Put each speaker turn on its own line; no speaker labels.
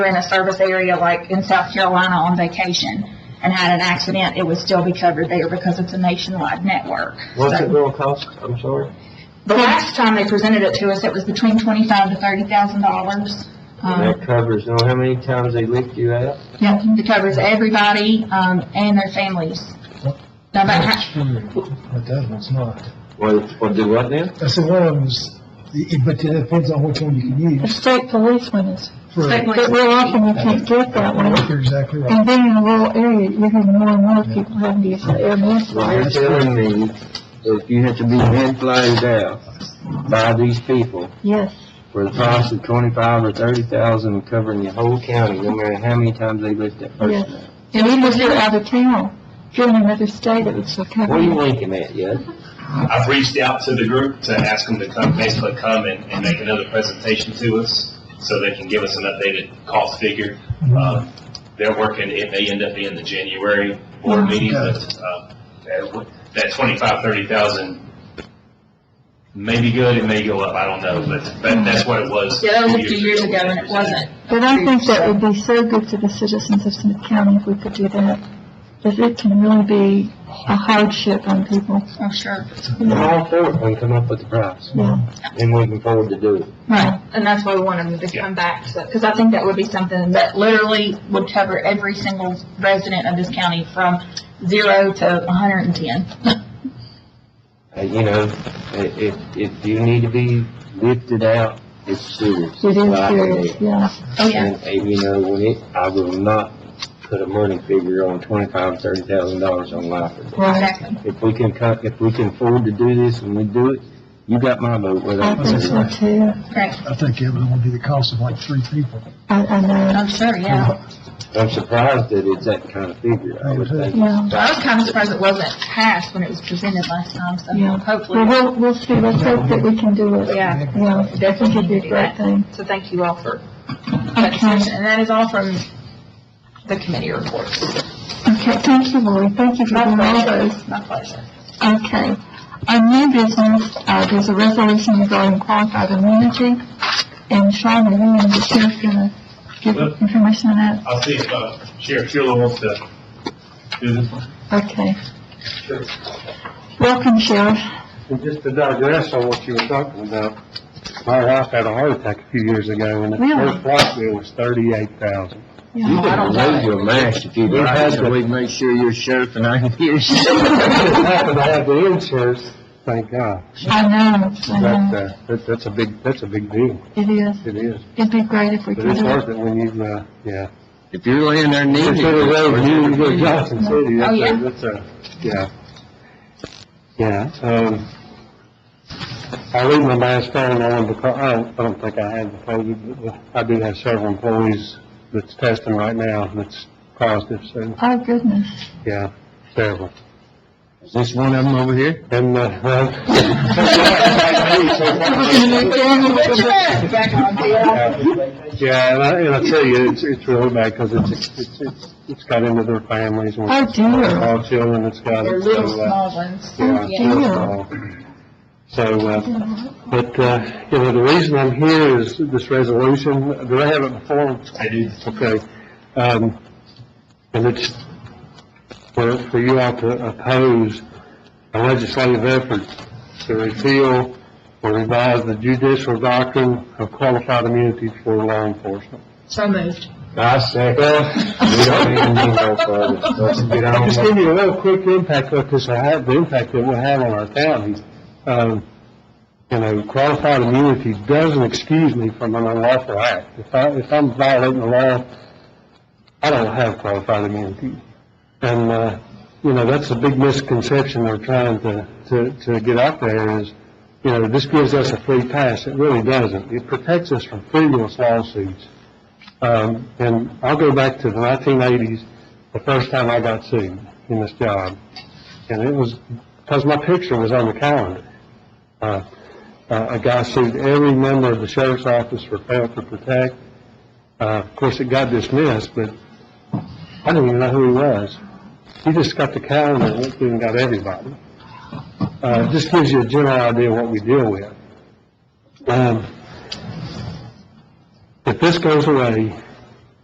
in a service area like in South Carolina on vacation and had an accident, it would still be covered there because it's a nationwide network.
What's
So-
it gonna cost? I'm sorry.
The last time they presented it to us, it was between twenty-five to thirty thousand dollars. um,
And
Uh-huh.
that covers, know how many times they lift you out?
Yep, it covers everybody, um, and their families. Now, that ha-
But that one's not.
What, what do what now?
I said one of them's, it- but it depends on which one you can
The
use.
state policeman is,
for-
State police.
but real often you can't get that one.
You're exactly right.
And being in a rural area, you're gonna more and more people having to use the air
Well, you're
ambulance.
telling me that if you had to be hand flagged out by these people
Yes,
for the cost of twenty-five or thirty thousand covering your whole county, no matter how many times they lift that person
yes.
out.
And even if you're out of town, if you're in another state, it would still cover
What are you
you.
winking at, Yud?
I've reached out to the group to ask them to come, basically come and, and make another presentation to us, so they can give us an updated cost figure. Uh, They're working, it may end up being the January board meeting, but, uh, that- that twenty-five, thirty thousand may be good, it may go up, I don't know, but, but that's what it was.
yeah, that was a
two
few years ago and it wasn't.
But I think that would be so good to the citizens of Smith County if we could do that. Because it can really be a hardship on people.
Oh, sure.
I'm all for it when you come up with the price,
Yeah,
and we can afford to do it.
Right, and that's why we wanted them to come back, so, because I think that would be something that literally would cover every single resident of this county from zero to hundred and ten.
Uh, you know, i- if, if you need to be lifted out, it's serious.
it is
Like
serious,
that.
yeah.
Oh, yeah.
And, and you know, when it, I will not put a money figure on twenty-five, thirty thousand dollars on life.
Right.
Exactly.
If we can cut, if we can afford to do this and we do it, you got my vote whether
I
I'm
think so too.
I think it would be the cost of like three people.
I, I know,
Oh, sure, yeah.
I'm surprised that it's that kind of figure, I would think.
yeah.
I was kind of surprised it wasn't passed when it was presented last time, so
Yeah. Well,
hopefully,
we'll, we'll see, let's hope that we can do it.
yeah.
Yeah, I think it'd be a great thing.
So thank you all for that discussion,
Okay,
and that is all from the committee reports.
okay, thank you, Lori, thank you for doing all those.
My pleasure.
Okay. On new business, uh, there's a resolution regarding qualified immunity, and Sean, are you and the sheriff gonna give information on that?
I'll see if, uh, Sheriff Shula wants to do this one.
Okay. Welcome, Sheriff.
And just to digress on what you were talking about, my wife had a heart attack a few years ago, and the
Really?
first life bill was thirty-eight thousand.
You
I
can
don't
raise
know.
your mask if you do.
Right.
That's the way to make sure you're sheriff and I can hear
I
you.
happen to have the insurance, thank God,
I know, I
but,
know,
uh, that, that's a big, that's a big deal,
it is.
it is.
It'd be great if we
But
could
it's
do it.
hard that when you, uh, yeah.
If you're laying there kneeling.
Consider those, you can go to Johnson City,
Oh,
that's
yeah.
a, that's a, yeah. Yeah, um, I leave my mask on, I don't, because, I don't, I don't think I had the COVID, but I do have several employees that's testing right now, that's positive, so,
Oh, goodness.
yeah, several.
Is this one of them over here?
And, uh, well,
Back on, yeah.
yeah, and I, and I tell you, it's, it's really bad, because it's, it's, it's, it's got into their families, and
Oh, dear.
all children, it's got.
They're little
so, uh,
small ones.
Yeah.
Yeah.
So, uh, but, uh, you know, the reason I'm here is this resolution, did I have it before?
I do.
Okay. Um, and it's for, for you all to oppose a legislative effort to repeal or revise the judicial doctrine of qualified immunity for law enforcement.
So moved.
I second. We don't even need no further. Let's get on
Just
with it.
give you a little quick impact, what this will have, the impact it will have on our county. Um, you know, qualified immunity doesn't excuse me from an unlawful act. If I, if I'm violating the law, I don't have qualified immunity. And, uh, you know, that's a big misconception they're trying to, to, to get out there is, you know, this gives us a free pass. It really doesn't. It protects us from frivolous lawsuits. Um, and I'll go back to the nineteen eighties, the first time I got sued in this job. And it was because my picture was on the calendar. Uh, uh, a guy sued every member of the sheriff's office for fail to protect. Uh, of course, it got dismissed, but I didn't even know who he was. He just got the calendar and went through and got everybody. Uh, it just gives you a general idea what we deal with. Um, if this goes away,